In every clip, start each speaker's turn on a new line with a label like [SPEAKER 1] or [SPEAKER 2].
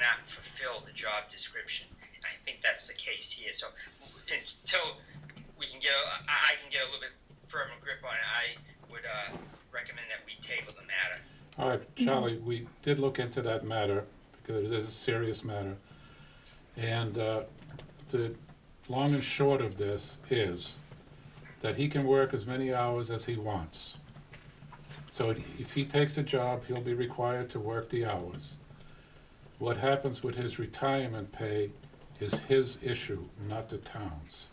[SPEAKER 1] not fulfill the job description. And I think that's the case here. So until we can get, a- I I can get a little bit firmer grip on it, I would uh, recommend that we table the matter.
[SPEAKER 2] All right, Charlie, we did look into that matter because it is a serious matter. And uh, the long and short of this is that he can work as many hours as he wants. So if he takes a job, he'll be required to work the hours. What happens with his retirement pay is his issue, not the town's.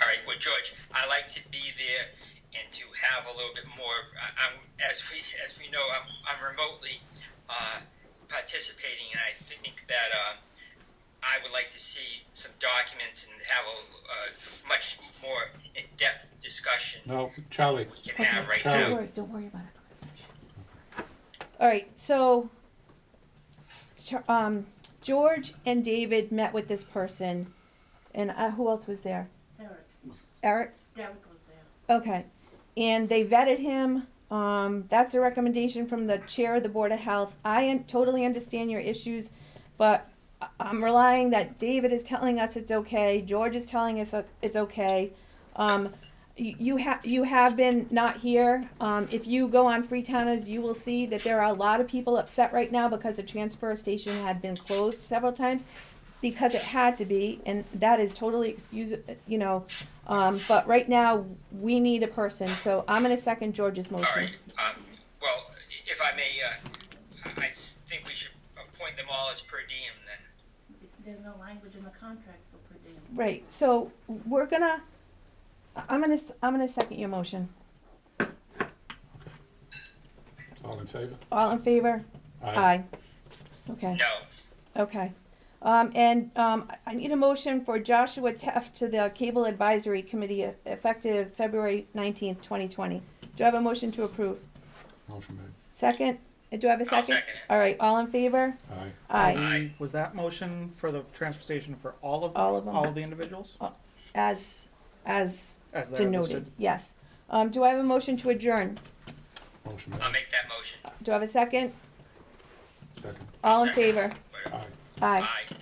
[SPEAKER 1] All right, well, George, I like to be there and to have a little bit more. Of, I, I'm as we as we know, I'm I'm remotely uh, participating, and I think that uh, I would like to see some documents and have a uh, much more in-depth discussion
[SPEAKER 2] No, Charlie,
[SPEAKER 1] we can
[SPEAKER 3] Okay,
[SPEAKER 1] have right
[SPEAKER 2] Charlie.
[SPEAKER 3] Don't
[SPEAKER 1] now.
[SPEAKER 3] worry, don't worry about it. All right, so, Char- um, George and David met with this person, and uh, who else was there?
[SPEAKER 4] Derek,
[SPEAKER 3] Eric?
[SPEAKER 4] Derek was there.
[SPEAKER 3] Okay, and they vetted him, um, that's a recommendation from the chair of the Board of Health. I un- totally understand your issues, but I- I'm relying that David is telling us it's okay, George is telling us that it's okay. Um, you, you have, you have been not here, um, if you go on Freetowners, you will see that there are a lot of people upset right now because the transfer station had been closed several times, because it had to be, and that is totally excuse, you know, um, but right now, we need a person, so I'm gonna second George's
[SPEAKER 1] All
[SPEAKER 3] motion.
[SPEAKER 1] right. Um, well, if I may, uh, I I think we should appoint them all as per diem then.
[SPEAKER 4] It's- There's no language in the contract for per diem.
[SPEAKER 3] Right, so we're gonna, I- I'm gonna, s- I'm gonna second your motion.
[SPEAKER 2] all in favor?
[SPEAKER 3] All in favor? Aye. Okay,
[SPEAKER 1] No.
[SPEAKER 3] okay. Um, and, um, I- I need a motion for Joshua Teff to the Cable Advisory Committee e- effective February nineteenth, twenty twenty. Do I have a motion to approve?
[SPEAKER 2] Motion made.
[SPEAKER 3] Second? Uh, Do I have a 2nd
[SPEAKER 1] I'll second it.
[SPEAKER 3] All right, all in favor?
[SPEAKER 2] Aye.
[SPEAKER 3] Aye,
[SPEAKER 1] Aye.
[SPEAKER 5] Was that motion for the transfer station for all of,
[SPEAKER 3] All of them.
[SPEAKER 5] all of the individuals?
[SPEAKER 3] as, as
[SPEAKER 5] As they're listed?
[SPEAKER 3] denoted, yes. Um, do I have a motion to adjourn?
[SPEAKER 2] Motion
[SPEAKER 1] I'll
[SPEAKER 2] made.
[SPEAKER 1] make that motion.
[SPEAKER 3] Do I have a second?
[SPEAKER 2] Second.
[SPEAKER 3] All in
[SPEAKER 1] Second.
[SPEAKER 3] favor?
[SPEAKER 1] Whatever.
[SPEAKER 2] Aye.
[SPEAKER 3] Aye.
[SPEAKER 1] Aye.